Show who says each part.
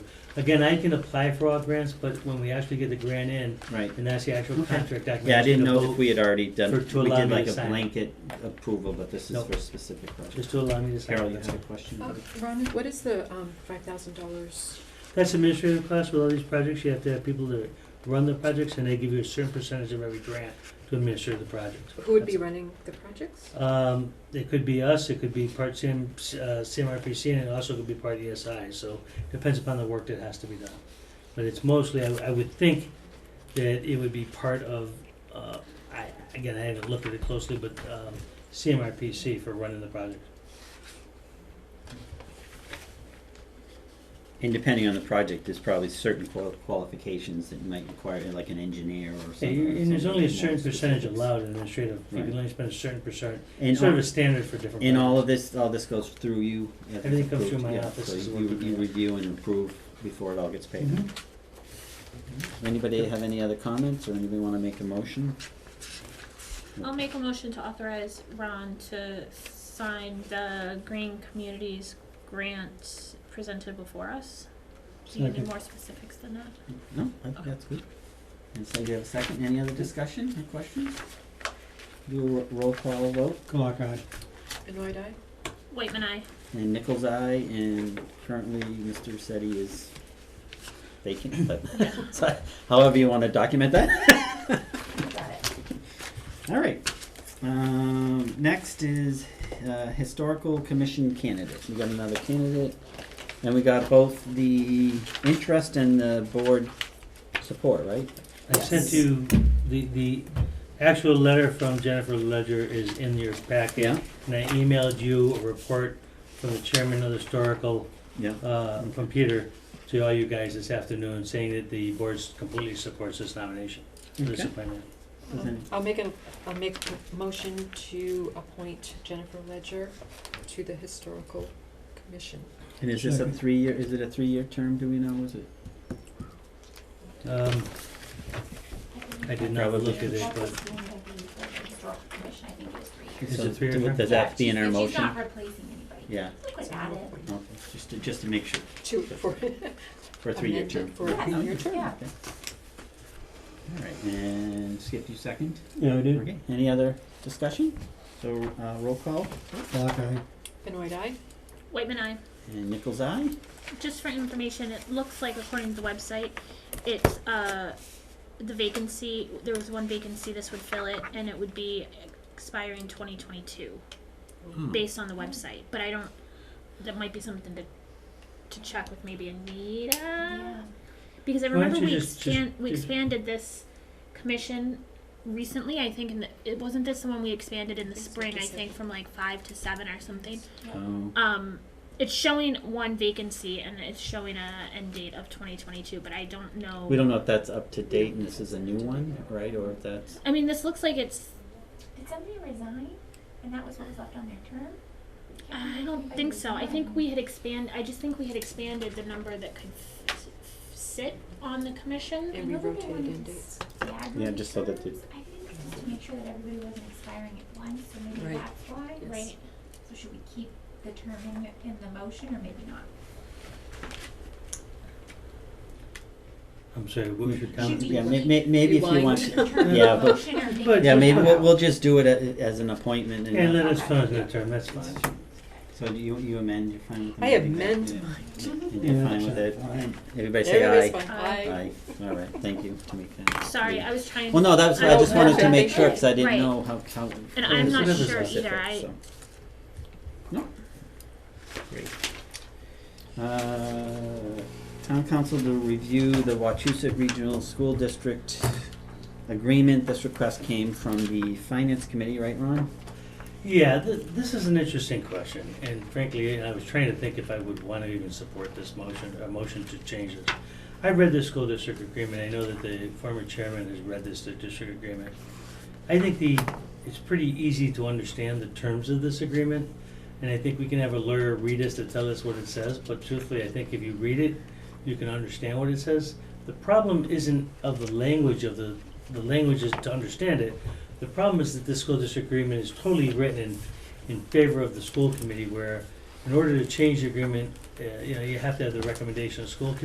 Speaker 1: Again, I can apply for all grants, but when we actually get the grant in,
Speaker 2: Right.
Speaker 1: and that's the actual
Speaker 2: Okay.
Speaker 1: contract document.
Speaker 2: Yeah, I didn't
Speaker 1: to
Speaker 2: know if
Speaker 1: vote-
Speaker 2: we had already done,
Speaker 1: for-
Speaker 2: we
Speaker 1: to allow
Speaker 2: did
Speaker 1: me
Speaker 2: like
Speaker 1: to
Speaker 2: a
Speaker 1: sign.
Speaker 2: blanket approval, but this is
Speaker 1: Nope.
Speaker 2: for a specific project.
Speaker 1: Just to allow me to sign.
Speaker 2: Carol, you
Speaker 1: that's
Speaker 2: had a
Speaker 1: all.
Speaker 2: question?
Speaker 3: Uh, Ron, what is the, um, five thousand dollars?
Speaker 1: That's administrative costs with all these projects, you have to have people that run the projects, and they give you a certain percentage of every grant to administer the project.
Speaker 3: Who would be running the projects?
Speaker 1: Um, it could be us, it could be part CM, uh, CMRPC, and it also could be part ESI, so depends upon the work that has to be done. But it's mostly, I, I would think that it would be part of, uh, I, again, I haven't looked at it closely, but, um, CMRPC for running the project.
Speaker 2: And depending on the project, there's probably certain qual- qualifications that you might require, like an engineer or something.
Speaker 1: And you- and there's
Speaker 2: something
Speaker 1: only a
Speaker 2: more
Speaker 1: certain percentage
Speaker 2: specific.
Speaker 1: allowed in administrative, you can
Speaker 2: Right.
Speaker 1: only spend a certain percent,
Speaker 2: And
Speaker 1: sort of
Speaker 2: all-
Speaker 1: a standard for different projects.
Speaker 2: And all of this, all this goes through you? if it's
Speaker 1: Everything comes through
Speaker 2: approved,
Speaker 1: my
Speaker 2: yeah,
Speaker 1: office
Speaker 2: so
Speaker 1: is
Speaker 2: you-
Speaker 1: what we
Speaker 2: You
Speaker 1: do.
Speaker 2: review and approve before it all gets paid.
Speaker 1: Mhm. Mm-hmm.
Speaker 2: Anybody have any other comments, or anybody wanna make a motion?
Speaker 4: I'll make a motion to authorize Ron to sign the Green Communities grant presented before us. Do you need
Speaker 1: Second.
Speaker 4: more specifics than that?
Speaker 2: No, I think
Speaker 4: Okay.
Speaker 2: that's good. And so you have a second, any other discussion or questions? Do a ro- roll call vote,
Speaker 1: Clark, aye.
Speaker 3: Annoyed eye?
Speaker 4: Waitman, I.
Speaker 2: and Nichols' eye, and currently Mr. Setti is vacant, but, so however you wanna document that. Alright, um, next is, uh, Historical Commission candidate, we got another candidate, and we got both the interest and the board support, right?
Speaker 1: I sent
Speaker 2: Yes.
Speaker 1: you, the, the actual letter from Jennifer Ledger is in your packet.
Speaker 2: Yeah,
Speaker 1: And I emailed you a report from the chairman of the historical,
Speaker 2: yeah.
Speaker 1: uh, from Peter, to all you guys this afternoon, saying that the board completely supports this nomination. for this
Speaker 2: Okay.
Speaker 1: appointment.
Speaker 2: Does any-
Speaker 3: Um, I'll make a, I'll make a motion to appoint Jennifer Ledger to the Historical Commission.
Speaker 2: And is this a three-year, is it a three-year term, do we know, is it?
Speaker 1: Um, I did not
Speaker 2: Probably.
Speaker 1: look at it, but Is
Speaker 2: So
Speaker 1: it three-year
Speaker 2: do-
Speaker 1: term?
Speaker 2: Does that be in our
Speaker 5: She's not
Speaker 2: motion?
Speaker 5: replacing anybody.
Speaker 2: Yeah,
Speaker 5: Look what's added.
Speaker 2: okay, just to, just to make sure,
Speaker 3: To, for,
Speaker 2: for a three-year
Speaker 3: Amended
Speaker 2: term.
Speaker 3: for a
Speaker 2: Yeah,
Speaker 3: three-year
Speaker 2: okay,
Speaker 3: term.
Speaker 2: okay. All right, and Skip, you second?
Speaker 6: Yeah, I did.
Speaker 2: Okay, any other discussion? So, uh, roll call,
Speaker 6: Clark, aye.
Speaker 3: annoyed eye?
Speaker 4: Waitman, I.
Speaker 2: and Nichols' eye?
Speaker 4: Just for information, it looks like according to the website, it's, uh, the vacancy, there was one vacancy, this would fill it, and it would be expiring twenty twenty-two.
Speaker 5: Uh,
Speaker 3: Hmm.
Speaker 4: based on the website, but I don't. That might be something to to check with maybe Anita
Speaker 5: Yeah.
Speaker 4: because I
Speaker 1: Why don't
Speaker 4: remember we
Speaker 1: you just- just-
Speaker 4: expand we
Speaker 1: just-
Speaker 4: expanded this commission recently. I think in the, it wasn't this the one we expanded in the
Speaker 3: It's
Speaker 4: spring. I
Speaker 3: fifty-seven.
Speaker 4: think from like five to seven or something.
Speaker 2: Oh,
Speaker 4: Um, it's showing one vacancy and it's showing a end date of 2022, but I don't know.
Speaker 2: we don't know if that's up to date and this is a new one, right, or if that's,
Speaker 4: I mean, this looks like it's.
Speaker 5: Did somebody resign and that was what was left on their term?
Speaker 4: I don't think so. I think we had expand. I just think we had expanded the number that could f- f- sit on the commission.
Speaker 3: And we
Speaker 5: Another
Speaker 3: rotate
Speaker 5: one
Speaker 3: in
Speaker 5: is-
Speaker 3: dates.
Speaker 5: Yeah, I
Speaker 2: Yeah,
Speaker 5: think
Speaker 2: just so that
Speaker 5: terms-
Speaker 2: it-
Speaker 5: I think it's just to make sure that everybody wasn't expiring at once, so maybe
Speaker 3: Right.
Speaker 5: that's why,
Speaker 3: Yes.
Speaker 5: right? So should we keep the term in, the- in the motion or maybe not?
Speaker 1: I'm sorry, what was your comment?
Speaker 5: Should we
Speaker 2: yeah, may-
Speaker 5: really
Speaker 2: may- maybe if you
Speaker 3: rewind?
Speaker 2: want
Speaker 5: Keep
Speaker 2: to,
Speaker 5: the term in
Speaker 2: yeah,
Speaker 5: the
Speaker 2: but-
Speaker 5: motion or maybe?
Speaker 1: but-
Speaker 2: yeah, maybe we'll,
Speaker 1: Yeah.
Speaker 2: we'll just do it a- as an appointment and.
Speaker 1: And
Speaker 2: not-
Speaker 1: let us know the term, that's fine.
Speaker 2: So do you, you amend, you're fine with
Speaker 3: I
Speaker 2: amending that?
Speaker 3: amend
Speaker 2: Yeah.
Speaker 3: mine.
Speaker 2: And you're
Speaker 6: Yeah,
Speaker 2: fine with
Speaker 6: sure.
Speaker 2: it?
Speaker 6: Fine.
Speaker 2: Everybody say aye.
Speaker 3: Everybody's fine.
Speaker 4: Aye.
Speaker 3: Aye.
Speaker 2: Aye, all right, thank you, Tamika.
Speaker 4: Sorry, I was trying.
Speaker 2: Well, no, that was, I
Speaker 4: I'm-
Speaker 2: just wanted to
Speaker 3: Okay.
Speaker 2: make sure, because I didn't
Speaker 4: Right.
Speaker 2: know how, how.
Speaker 4: And
Speaker 2: it
Speaker 4: I'm
Speaker 2: was
Speaker 1: not
Speaker 2: specific,
Speaker 1: sure
Speaker 4: either, I-
Speaker 2: so. No. Great. Uh, town council to review the Wachusett Regional School District agreement. This request came from the finance committee, right, Ron?
Speaker 1: Yeah, th- this is an interesting question, and frankly, I was trying to think if I would want to even support this motion, a motion to change this. I read the school district agreement, I know that the former chairman has read this district agreement. I think the, it's pretty easy to understand the terms of this agreement, and I think we can have a lawyer read us to tell us what it says, but truthfully, I think if you read it, you can understand what it says. The problem isn't of the language of the, the language is to understand it, the problem is that this school district agreement is totally written in, in favor of the school committee, where in order to change the agreement, uh, you know, you have to have the recommendation of school committee.